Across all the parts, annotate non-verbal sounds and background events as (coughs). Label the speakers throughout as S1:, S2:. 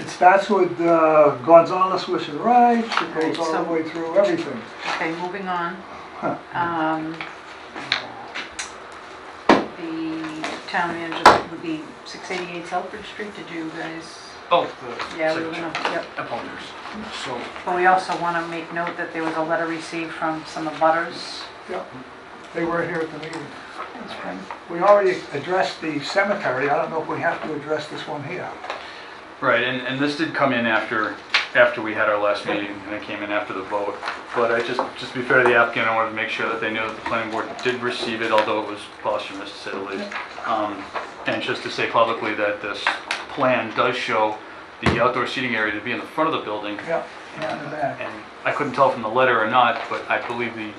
S1: It starts with uh, Gonzales Wish and Ride, it
S2: Right,
S1: goes all
S2: so-
S1: the way through everything.
S2: Okay, moving on.
S1: Huh.
S2: Um, The town manager would be 688 Selfridge Street, did you guys?
S3: Both the.
S2: Yeah, we were gonna, yep.
S3: Opponents. So,
S2: But we also want to make note that there was a letter received from some of butters.
S1: Yep. They were here at the meeting.
S2: That's right.
S1: We already addressed the cemetery, I don't know if we have to address this one here.
S4: Right, and, and this did come in after, after we had our last meeting, and it came in after the vote. But I just, just to be fair to the applicant, I wanted to make sure that they knew that the planning board did receive it, although it was posthumous to say the least. Um, And just to say publicly that this plan does show the outdoor seating area to be in the front of the building.
S1: Yep, and in the back.
S4: And I couldn't tell from the letter or not, but I believe the,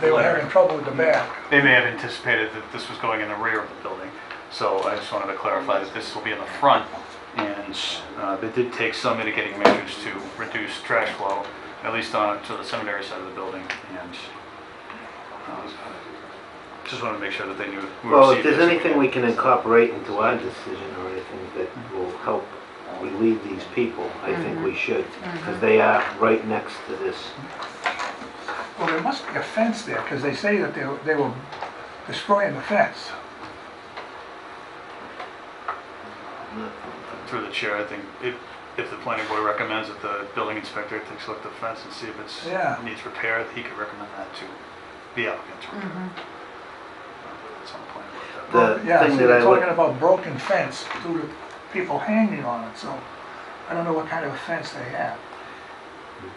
S1: They were having trouble with the back.
S4: they may have anticipated that this was going in the rear of the building. So I just wanted to clarify that this will be in the front, and uh, they did take some mitigating measures to reduce trash flow, at least on, to the cemetery side of the building, and um, just wanted to make sure that they knew. we
S5: Well,
S4: received
S5: if there's
S4: this.
S5: anything we can incorporate into our decision or anything that will help relieve these people, I think we should, because they are right next to this.
S1: Well, there must be a fence there, because they say that they were- they were destroying the fence.
S4: Through the chair, I think if, if the planning board recommends that the building inspector takes a look at the fence and see if
S1: Yeah.
S4: it's, needs repair, he could recommend that to the applicant
S2: Mm.
S4: to
S2: Mm-hmm.
S4: repair. It's on the planning board. that-
S5: The
S1: Yeah, so
S5: thing that
S1: they're
S5: I would-
S1: talking about broken fence due to people hanging on it, so I don't know what kind of a fence they have.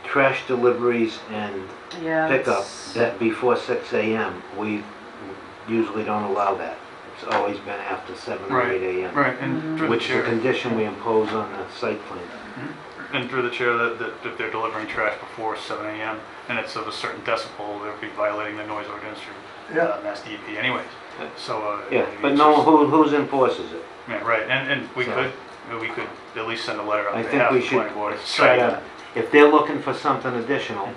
S5: Trash deliveries and
S2: Yeah.
S5: pickup
S2: that's-
S5: that before six AM, we usually don't allow that. It's always been after seven or
S4: Right,
S5: eight AM.
S4: Right, and through the
S5: Which is a
S4: chair,
S5: condition we impose on the site plan.
S4: and through the chair, that, that if they're delivering trash before seven AM and it's of a certain decibel, they'll be violating the noise ordinance through
S1: Yeah.
S4: uh, Mass DEP anyways, so. uh,
S5: Yeah,
S4: I mean,
S5: but
S4: it's
S5: no,
S4: just-
S5: who, who's enforces it?
S4: Yeah, right, and, and we
S5: So-
S4: could, we could at least send a letter
S5: I
S4: on
S5: think
S4: behalf
S5: we
S4: of the
S5: should
S4: planning board.
S5: try
S4: citing
S5: to, if they're looking for something additional,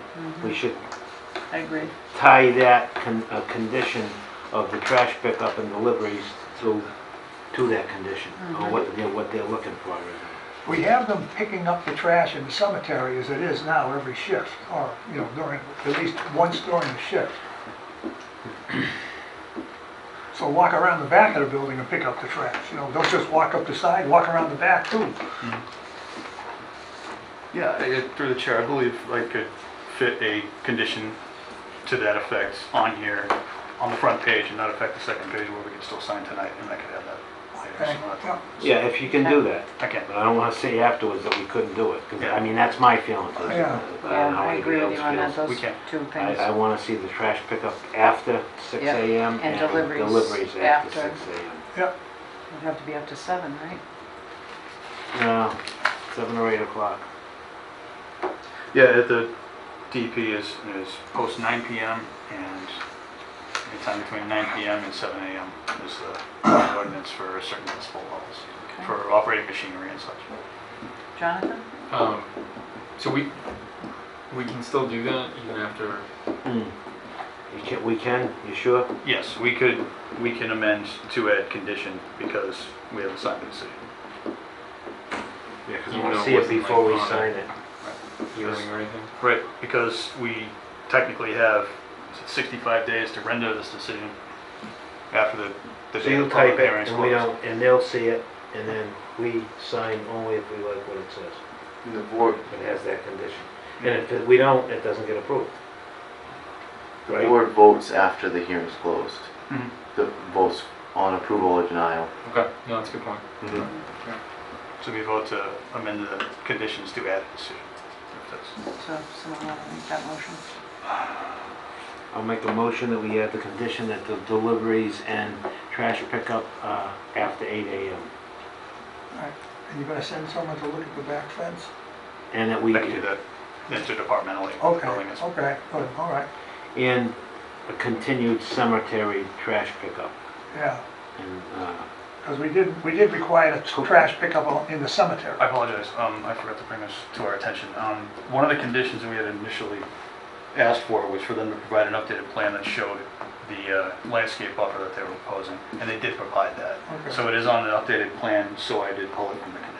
S5: we should
S2: I agree.
S5: tie that con, a condition of the trash pickup and deliveries to, to that condition,
S2: Mm-hmm.
S5: or what, they're- what they're looking for.
S1: We have them picking up the trash in the cemetery as it is now every shift, or, you know, during, at least once during the shift. (clears throat) So walk around the back of the building and pick up the trash, you know, don't just walk up the side, walk around the back too.
S4: Yeah, I- I- through the chair, I believe I could fit a condition to that effect on here, on the front page, and not affect the second page where we can still sign tonight, and I could have that
S1: Okay,
S4: later. so
S1: yeah.
S4: not-
S5: Yeah, if you can do that,
S4: I can't.
S5: but I don't wanna say afterwards that we couldn't do it, 'cause,
S4: Yeah.
S5: I mean, that's my feeling. 'cause I don't
S1: Yeah.
S5: know
S2: Yeah,
S5: how
S2: I agree with
S5: anybody
S2: you
S5: else
S2: on that,
S5: feels.
S2: those
S4: We can.
S2: two
S5: I,
S2: things.
S5: I wanna see the trash pickup after six
S2: Yeah,
S5: AM.
S2: and deliveries
S5: Deliveries after
S2: after.
S5: six AM.
S1: Yep,
S2: It'd have to be up to seven, right?
S5: No, seven or eight o'clock.
S4: Yeah, at the DP is, is post 9 PM and anytime between 9 PM and 7 AM is the (coughs) ordinance for certain decibel levels,
S2: Okay.
S4: for operating machinery and such.
S2: Jonathan?
S6: Um, so we, we can still do that even after,
S5: You can, we can, you sure?
S4: Yes, we could, we can amend to add condition because we haven't signed the decision.
S5: Yeah,
S6: 'cause
S5: we
S6: we
S5: want to
S6: know
S5: see it
S6: what's in my
S5: before we
S6: phone.
S5: sign it.
S6: hearing or anything?
S4: Right, because we technically have 65 days to render this decision after the, the
S5: So
S4: date
S5: you
S4: of public
S5: type it,
S4: hearing is
S5: and we
S4: closed.
S5: don't, and they'll see it, and then we sign only if we like what it says.
S7: The board,
S5: It has that condition. And if it- we don't, it doesn't get approved.
S7: the
S5: Right?
S7: board votes after the hearing's closed.
S4: Mhm.
S7: The votes on approval or denial.
S6: Okay, no, that's a good point.
S4: So we vote to amend the conditions to add a decision. if that's-
S2: So someone want to make that motion?
S5: I'll make a motion that we add the condition that the deliveries and trash pickup uh, after 8 AM.
S1: and you're gonna send someone to look at the back fence?
S5: And that we,
S4: Back to the interdepartmentally.
S1: Okay,
S4: building is-
S1: okay, good, all right,
S5: and a continued cemetery trash pickup.
S1: yeah,
S5: And, uh,
S1: because we did, we did require a trash pickup on- in the cemetery.
S4: I apologize, um, I forgot to bring this to our attention. Um, one of the conditions we had initially asked for was for them to provide an updated plan that showed the uh, landscape buffer that they were proposing, and they did provide that.
S1: Okay.
S4: So it is on the updated plan, so I did pull it from the condition.